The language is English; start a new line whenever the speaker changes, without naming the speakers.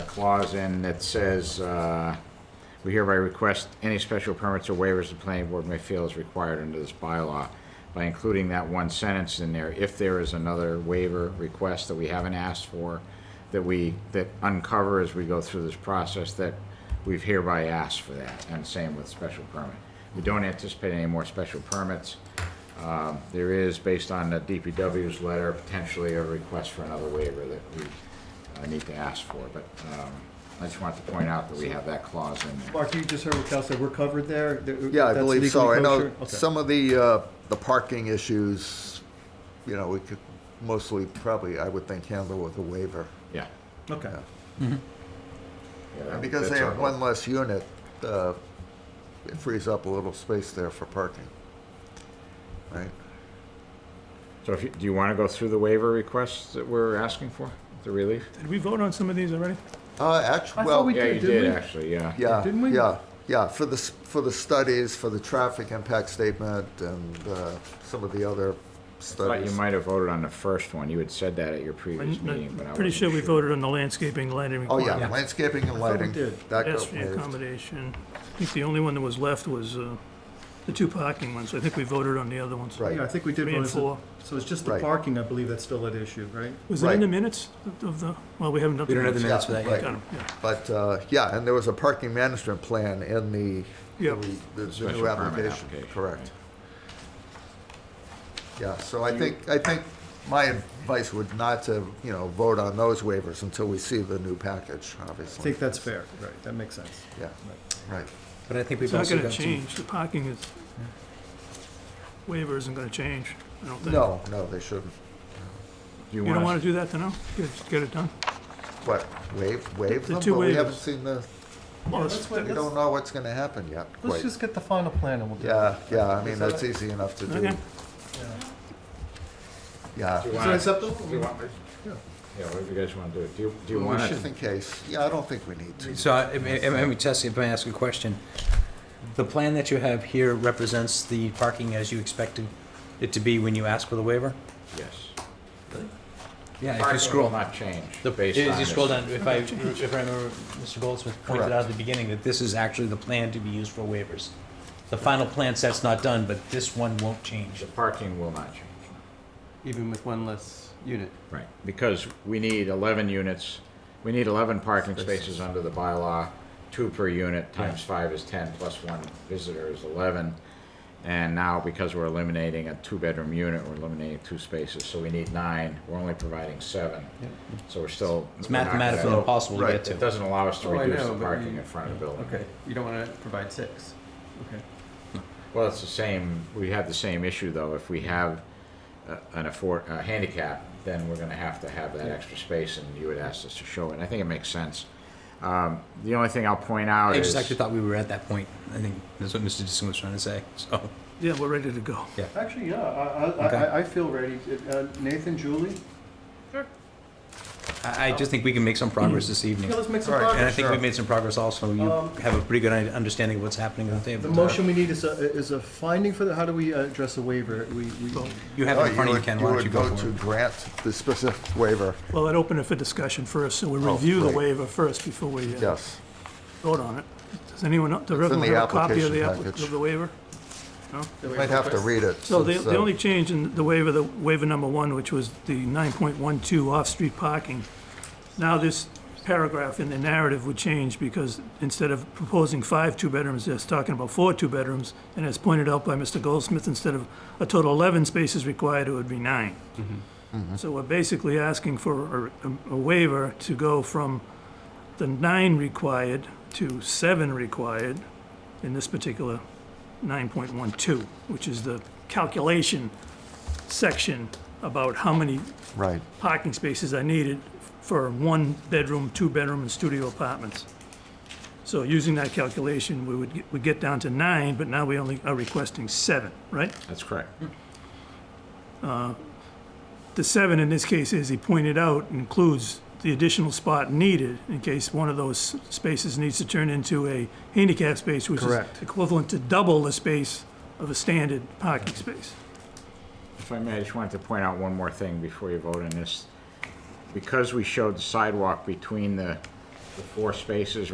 clause in that says, uh, we hereby request any special permits or waivers the planning board may feel is required under this bylaw. By including that one sentence in there, if there is another waiver request that we haven't asked for, that we, that uncover as we go through this process, that we've hereby asked for that, and same with special permit. We don't anticipate any more special permits. Um, There is, based on the DPW's letter, potentially a request for another waiver that we uh, need to ask for, but um, I just wanted to point out that we have that clause in there.
Mark, you just heard what Cal said, we're covered there? That-
Yeah, I
that's
believe so.
legally
I know
kosher? Okay.
some of the, uh, the parking issues, you know, we could mostly, probably, I would think, handle with a waiver.
Yeah.
Okay,
Yeah,
And because they
that's our
have
hope.
one less unit, uh, it frees up a little space there for parking. Right?
So if you, do you want to go through the waiver requests that we're asking for, the relief?
Did we vote on some of these already?
Uh,
I
actually,
thought
well,
we
Yeah, you
did, didn't
did,
we?
actually, yeah.
yeah,
didn't we?
yeah, yeah, for the, s- for the studies, for the traffic impact statement and, uh, some of the other
Thought you
studies.
might have voted on the first one. You had said that at your previous meeting, but I
I'm
wasn't
Pretty sure we voted on the landscaping, lighting
Oh,
requirement.
yeah, landscaping and lighting.
did.
That got
Pedestrian
waived.
accommodation. I think the only one that was left was uh, the two parking ones. I think we voted on the other ones.
Right.
yeah, I think we did.
Three and
vote as a-
four.
So it's just the
Right.
parking, I believe, that's still at issue, right?
Was it in the
Right.
minutes of the, well, we haven't done.
We don't have the
Yeah,
minutes for that
right.
yet.
Got 'em, yeah.
But, uh, yeah, and there was a parking management plan in the,
Yeah.
the- the
Special
new
permit
application,
application,
correct. Yeah, so I think, I think my advice would not to, you know, vote on those waivers until we see the new package,
I
obviously.
think that's fair, right, that makes sense.
Yeah, right.
But I think
It's
we've
not
also
gonna
got some,
change. The parking is, waiver isn't gonna change, I don't think.
No, no, they shouldn't.
You
You don't wanna
want
do that to now? Get, get it done?
What, waive, waive
The
them?
two
But we
waivers.
haven't seen the,
Well,
let's
it's-
wait.
we don't know what's gonna happen yet,
Let's
quite.
just get the final plan and we'll do it.
Yeah, yeah, I mean,
Is that-
that's easy enough to do.
Okay.
Yeah,
Do you
Is that
want, do you
acceptable?
want, yeah, what do you guys want to do? Do you, do you want
Well,
to?
just in case. Yeah, I don't think we need to.
so, I- I mean, I mean, Tessie, if I ask a question, the plan that you have here represents the parking as you expected it to be when you ask for the waiver?
Yes.
Yeah, if you
Parking will
scroll,
not change.
the-
based
if
on
you
this.
scroll down, if I, if I remember, Mr. Goldsmith pointed out at the beginning that this is actually the plan to be used for waivers. The final plan set's not done, but this one won't change.
The parking will not change.
even with one less unit.
Right. Because we need 11 units, we need 11 parking spaces under the bylaw, two per unit, times five is 10, plus one visitor is 11. And now, because we're eliminating a two-bedroom unit, we're eliminating two spaces, so we need nine, we're only providing seven. So we're still.
It's
we're not gonna-
mathematically impossible to
right,
get
It
to.
doesn't allow us to
Oh, I
reduce
know,
the
but
parking
you-
in front of the building.
Okay, you don't want to provide six. Okay.
Well, it's the same, we have the same issue, though. If we have uh, an afford, a handicap, then we're gonna have to have that extra space, and you would ask us to show it. I think it makes sense. Um, The only thing I'll point out
I
is,
just actually thought we were at that point. I think that's what Mr. Disson was trying to say, so.
Yeah, we're ready to go.
Actually, yeah, I, I-
Okay.
I, I feel ready. Uh, Nathan, Julie?
I,
Oh.
I just think we can make some progress this evening.
Yeah, let's make some
All right,
progress.
And I think
Sure.
we made some progress also. You
Um,
have a pretty good i- understanding of what's happening at the table.
The motion we need is a, is a finding for the, how do we uh, address a waiver? We, we,
You have
Oh,
it in front of you,
would-
Ken. Why don't you
would
go
vote
for
to
it?
grant the specific waiver,
Well, I'd open it for discussion first, so we
Oh,
review
right.
the waiver first before we uh,
yes.
vote on it. Does anyone, does everyone
the
have a copy
application
of the, app-
package.
of the waiver? No?
Might have to read it.
So the,
since,
the
uh,
only change in the waiver, the waiver number one, which was the nine point one two off-street parking, now this paragraph in the narrative would change because instead of proposing five two-bedrooms, it's talking about four two-bedrooms. And as pointed out by Mr. Goldsmith, instead of a total eleven spaces required, it would be nine. So we're basically asking for a, a waiver to go from the nine required to seven required in this particular 9.12, which is the calculation section about how many
Right,
parking spaces are needed for one bedroom, two bedroom, and studio apartments. So using that calculation, we would, get- we get down to nine, but now we only are requesting seven, right?
that's correct.
The seven in this case, as he pointed out, includes the additional spot needed in case one of those spaces needs to turn into a handicap space, which is
Correct.
equivalent to double the space of a standard parking space.
If I may, I just wanted to point out one more thing before you vote on this. Because we showed the sidewalk between the the four spaces